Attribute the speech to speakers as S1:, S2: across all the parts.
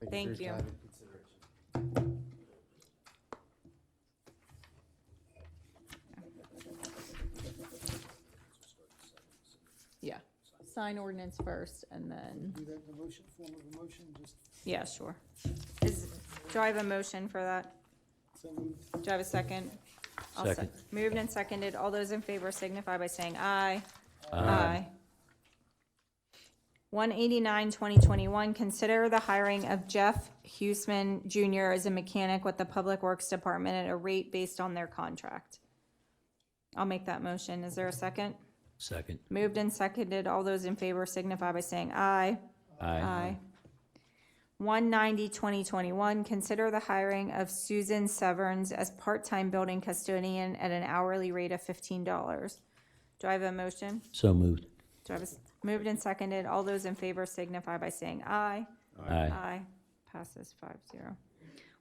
S1: take
S2: Thank
S1: your
S2: you.
S1: time and consideration.
S2: Yeah, sign ordinance first and then,
S3: Do that in a motion, form of a motion, just
S2: yeah, sure. Is, do I have a motion for that?
S3: so moved.
S2: Do I have a second? I'll se-
S4: Second.
S2: Moved and seconded. All those in favor signify by saying aye.
S4: Aye.
S2: 189, 2021, consider the hiring of Jeff Huesman Jr. as a mechanic with the Public Works Department at a rate based on their contract. I'll make that motion. Is there a second?
S4: Second.
S2: Moved and seconded. All those in favor signify by saying aye. Aye. 190, 2021, consider the hiring of Susan Severns as part-time building custodian at an hourly rate of $15. Do I have a motion?
S4: So moved.
S2: Do I have a, s- moved and seconded. All those in favor signify by saying aye.
S4: Aye.
S2: Aye. Passes five zero.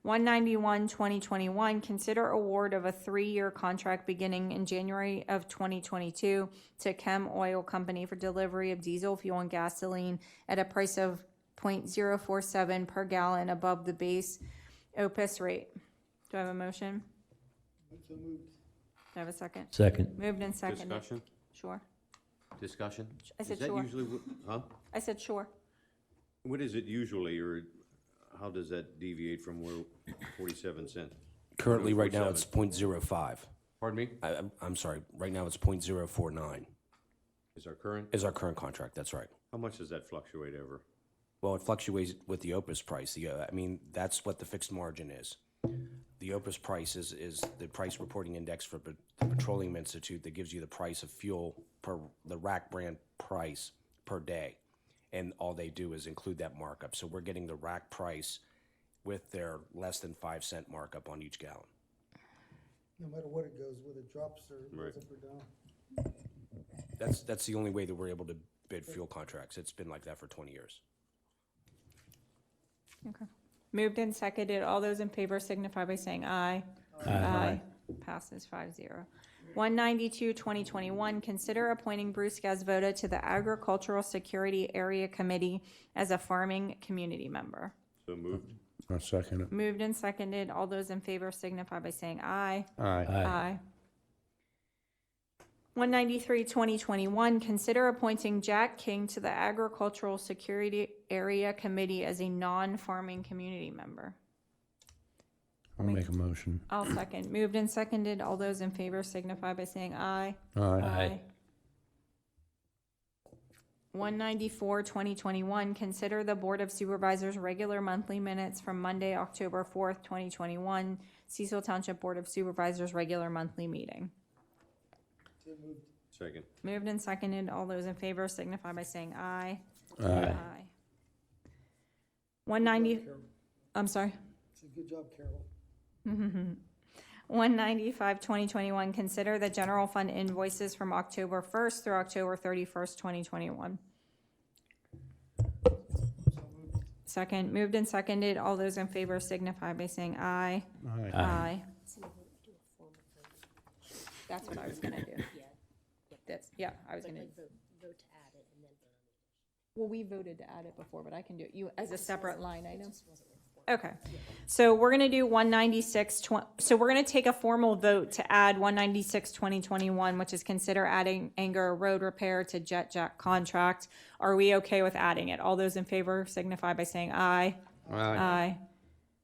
S2: One ninety-one, twenty twenty-one, consider award of a three-year contract beginning in January of twenty twenty-two to Chem Oil Company for delivery of diesel fuel and gasoline at a price of point zero four seven per gallon above the base OPUS rate. Do I have a motion?
S3: So moved.
S2: Do I have a second?
S4: Second.
S2: Moved and seconded.
S5: Discussion?
S2: Sure.
S5: Discussion?
S2: I
S5: Is
S2: said
S5: that
S2: sure.
S5: usually wh- Huh?
S2: I said sure.
S5: What is it usually, or how does that deviate from where forty-seven cent?
S6: Currently, right now, it's point zero five.
S5: Pardon me?
S6: I, I'm, I'm sorry, right now, it's point zero four nine
S5: Is our current,
S6: is our current contract, that's right.
S5: how much does that fluctuate over?
S6: Well, it fluctuates with the OPUS price. The, uh, I mean, that's what the fixed margin is. The OPUS price is, is the price reporting index for Pet- the Petroleum Institute that gives you the price of fuel per, the rack brand price per day. And all they do is include that markup. So we're getting the rack price with their less than five cent markup on each gallon.
S3: No matter what it goes, whether it drops or goes
S5: Right.
S3: up or down.
S6: That's, that's the only way that we're able to bid fuel contracts. It's been like that for twenty years.
S2: Okay. Moved and seconded. All those in favor signify by saying aye.
S4: Aye.
S2: Passes five zero. One ninety-two, twenty twenty-one, consider appointing Bruce Gazvoda to the Agricultural Security Area Committee as a farming community member.
S5: So moved?
S7: I second it.
S2: Moved and seconded. All those in favor signify by saying aye.
S7: Aye.
S2: Aye. 193, 2021, consider appointing Jack King to the Agricultural Security Area Committee as a non-farming community member.
S7: I'll make a motion.
S2: I'll second. Moved and seconded. All those in favor signify by saying aye.
S7: Aye.
S4: Aye.
S2: 194, 2021, consider the Board of Supervisors' regular monthly minutes from Monday, October 4th, 2021, Cecil Township Board of Supervisors' regular monthly meeting.
S3: So moved.
S5: Second.
S2: Moved and seconded. All those in favor signify by saying aye.
S4: Aye.
S2: Aye. 190,
S3: Carol.
S2: I'm sorry.
S3: It's a good job, Carol.
S2: 195, 2021, consider the general fund invoices from October 1st through October 31st, 2021. Second, moved and seconded. All those in favor signify by saying aye.
S7: Aye.
S2: Aye. That's what I was gonna do. That's, yeah, I was gonna. Well, we voted to add it before, but I can do it, you, as a separate line item. Okay, so we're gonna do one ninety-six twen- so we're gonna take a formal vote to add one ninety-six twenty twenty-one, which is consider adding Anger Road Repair to Jet Jack contract. Are we okay with adding it? All those in favor signify by saying aye. Aye.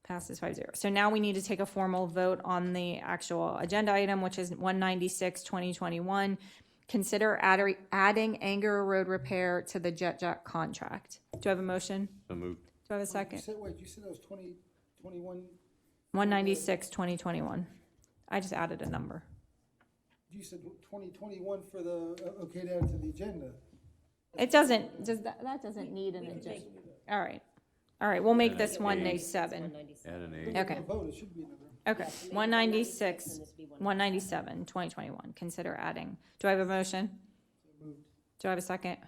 S2: Passes five zero. So now we need to take a formal vote on the actual agenda item, which is 196, 2021. Consider adder- adding Anger Road Repair to the Jet Jack contract. Do I have a motion?
S5: So moved?
S2: Do I have a
S3: You
S2: second?
S3: said, wait, you said it was twenty, twenty-one,
S2: 196, 2021. I just added a number.
S3: you said twenty twenty-one for the, uh, okay, down to the agenda.
S2: It doesn't, does, that that doesn't need an agenda. All right. All right, we'll make this 197.
S5: Add an eight?
S2: Okay.
S3: A vote, it should be another.
S2: Okay, 196, 197, 2021, consider adding. Do I have a motion? Do I have a second?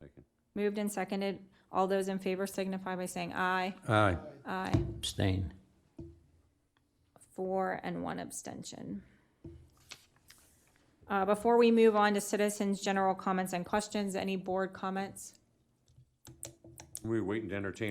S5: Second.
S2: Moved and seconded. All those in favor signify by saying aye.
S7: Aye.
S2: Aye.
S4: Abstain.
S2: Four and one abstention. Uh, Before we move on to citizens' general comments and questions, any board comments?
S5: We're waiting to entertain